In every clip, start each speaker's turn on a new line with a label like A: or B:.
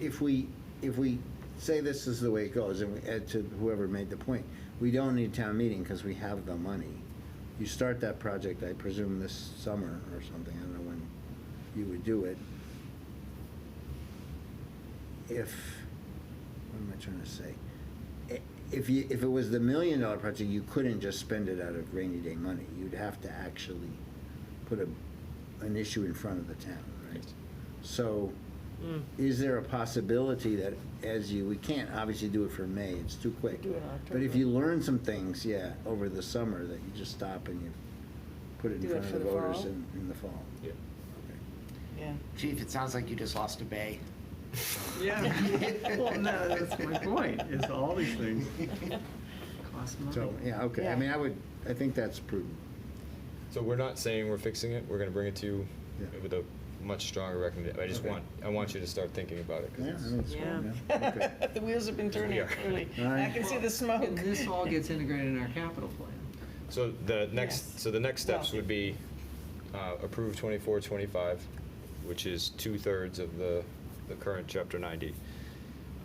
A: if we, if we say this is the way it goes, and we- and to whoever made the point, we don't need town meeting because we have the money. You start that project, I presume, this summer or something, I don't know when you would do it. If, what am I trying to say? I- If you, if it was the million dollar project, you couldn't just spend it out of rainy day money. You'd have to actually put a, an issue in front of the town, right? So,
B: Mm.
A: is there a possibility that as you, we can't obviously do it for May, it's too quick.
B: Do it in
A: But if
B: October.
A: you learn some things, yeah, over the summer, that you just stop and you put it in
B: Do it
A: front of
B: for
A: the
B: the
A: voters
B: fall?
A: in, in the fall.
C: Yeah.
B: Yeah.
D: Chief, it sounds like you just lost a bay.
E: Yeah, well, no, that's my point, is all these things cost money.
A: So, yeah, okay, I
B: Yeah.
A: mean, I would, I think that's prudent.
C: So we're not saying we're fixing it, we're gonna bring it to you
A: Yeah.
C: with a much stronger recommendation. I just
A: Okay.
C: want, I want you to start thinking about it,
A: Yeah, I
C: because
A: mean, it's fine, yeah, okay.
B: The wheels have been turning,
C: Yeah.
B: really.
A: All right.
B: I can see the smoke.
E: And this all gets integrated in our capital plan.
C: So the
B: Yes.
C: next, so the next steps
B: Well-
C: would be uh, approve 24, 25, which is two-thirds of the, the current Chapter 90.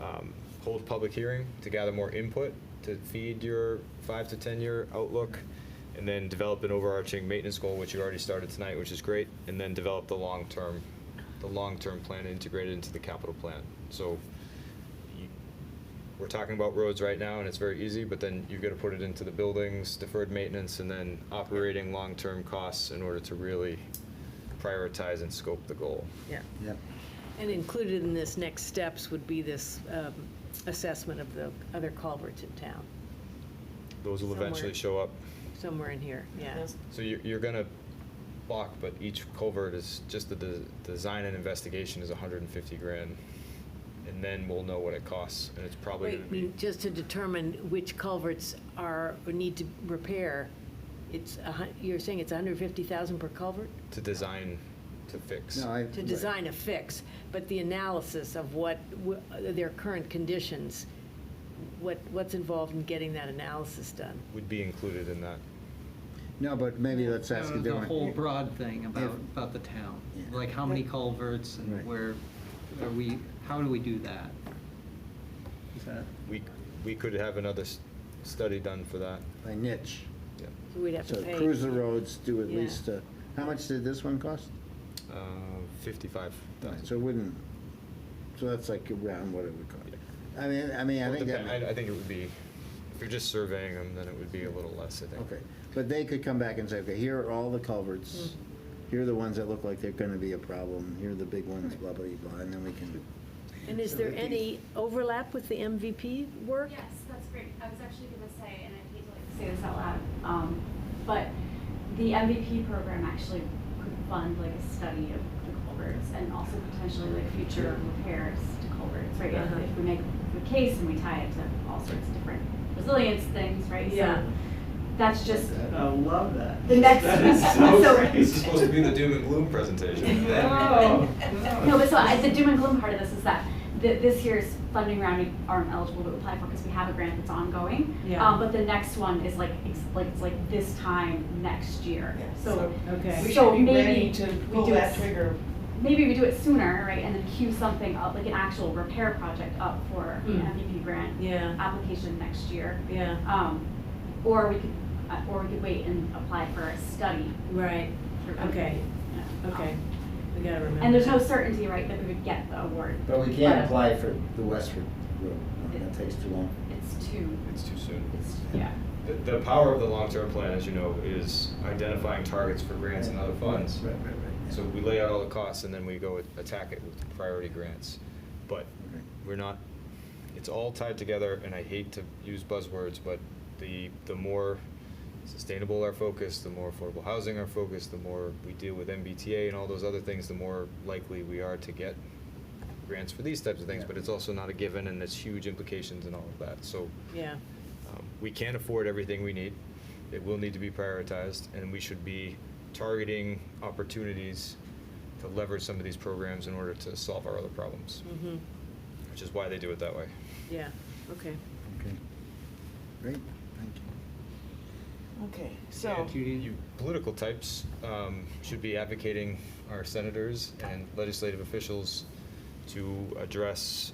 C: Um, Hold public hearing to gather more input, to feed your five to 10-year outlook, and then develop an overarching maintenance goal, which you already started tonight, which is great, and then develop the long-term, the long-term plan integrated into the capital plan. So you- we're talking about roads right now, and it's very easy, but then you've got to put it into the buildings, deferred maintenance, and then operating long-term costs in order to really prioritize and scope the goal.
F: Yeah,
A: Yep.
F: and included in this next steps would be this um, assessment of the other culverts in town,
C: Those will eventually show
F: Somewhere.
C: up.
F: somewhere in here, yeah.
B: That's-
C: So you're, you're gonna block, but each culvert is, just the de- design and investigation is hundred and fifty grand. And then we'll know what it costs, and it's probably
F: Wait,
C: gonna
F: I
C: be,
F: mean, just to determine which culverts are, or need to repair, it's, a hun- you're saying it's 150,000 per culvert?
C: to design, to fix.
A: No, I-
F: To
A: right.
F: design a fix, but the analysis of what, w- their current conditions, what, what's involved in getting that analysis done?
C: Would be included in that.
A: No, but maybe let's ask a
E: Uh, The
A: different.
E: whole broad thing about,
A: If-
E: about the town,
A: Yeah.
E: like how many culverts
A: Right.
E: and where, are we, how do we do that? Is that?
C: We, we could have another s- study done for that.
A: By niche.
C: Yeah.
F: So We'd have
A: So
F: to pay.
A: cruise the roads, do at
F: Yeah.
A: least, uh, how much did this one cost?
C: Uh, fifty-five thousand.
A: So it wouldn't, so that's like around what it would cost. I mean, I mean, I think that.
C: I, I think it would be, if you're just surveying them, then it would be a little less, I think.
A: Okay, but they could come back and say, okay, here are all the culverts,
F: Mm.
A: here are the ones that look like they're gonna be a problem, here are the big ones, blah, blah, blah, and then we can,
F: And is there any overlap with the MVP work?
G: Yes, that's great. I was actually gonna say, and I hate to like say this out loud, um, but the MVP program actually could fund like a study of the culverts and also potentially like future repairs to culverts, right?
F: Uh-huh.
G: If we make the case and we tie it to all sorts of different resilience things, right? So
F: Yeah.
G: That's just,
E: I love that.
G: The next-
E: That is so
G: so-
E: great.
G: This is
C: to be the doom and gloom presentation.
E: No,
G: no, but so I, the doom and gloom part of this is that th- this year's funding round we aren't eligible to apply for because we have a grant that's ongoing.
B: Yeah.
G: Um, but the next one is like, it's like, it's like this time next year. So
B: Okay.
G: So maybe we do it-
H: trigger.
G: maybe we do it sooner, right, and then queue something up, like an actual repair project up for an
B: Mm.
G: MVP grant
B: Yeah,
G: application next year.
B: yeah,
G: Um, or we could, uh, or we could wait and apply for a study.
B: right,
G: through
B: okay,
G: MVP, yeah.
B: okay. We gotta remember.
G: And there's no
B: that.
G: certainty, right, that we would get the award.
A: but we
G: can't
A: can't
G: Yeah.
A: apply for the Westford Road,
G: No,
A: that
G: that
A: takes too long.
G: It's too,
C: It's too soon.
G: it's, yeah.
C: The, the power of the long-term plan, as you know, is identifying targets for grants and other funds.
A: Right, right, right.
C: So we lay out all the costs and then we go attack it with priority grants. But
A: Okay.
C: we're not, it's all tied together, and I hate to use buzzwords, but the, the more sustainable our focus, the more affordable housing our focus, the more we deal with MBTA and all those other things, the more likely we are to get grants for these types of things, but it's also not a given, and it's huge implications and all of that, so.
F: Yeah.
C: Um, We can't afford everything we need. It will need to be prioritized, and we should be targeting opportunities to leverage some of these programs in order to solve our other problems,
F: Mm-hmm,
C: which is why they do it that way.
F: yeah, okay.
A: Okay. Great, thank you.
B: Okay, so,
C: And you- you Political types um, should be advocating our senators and legislative officials to address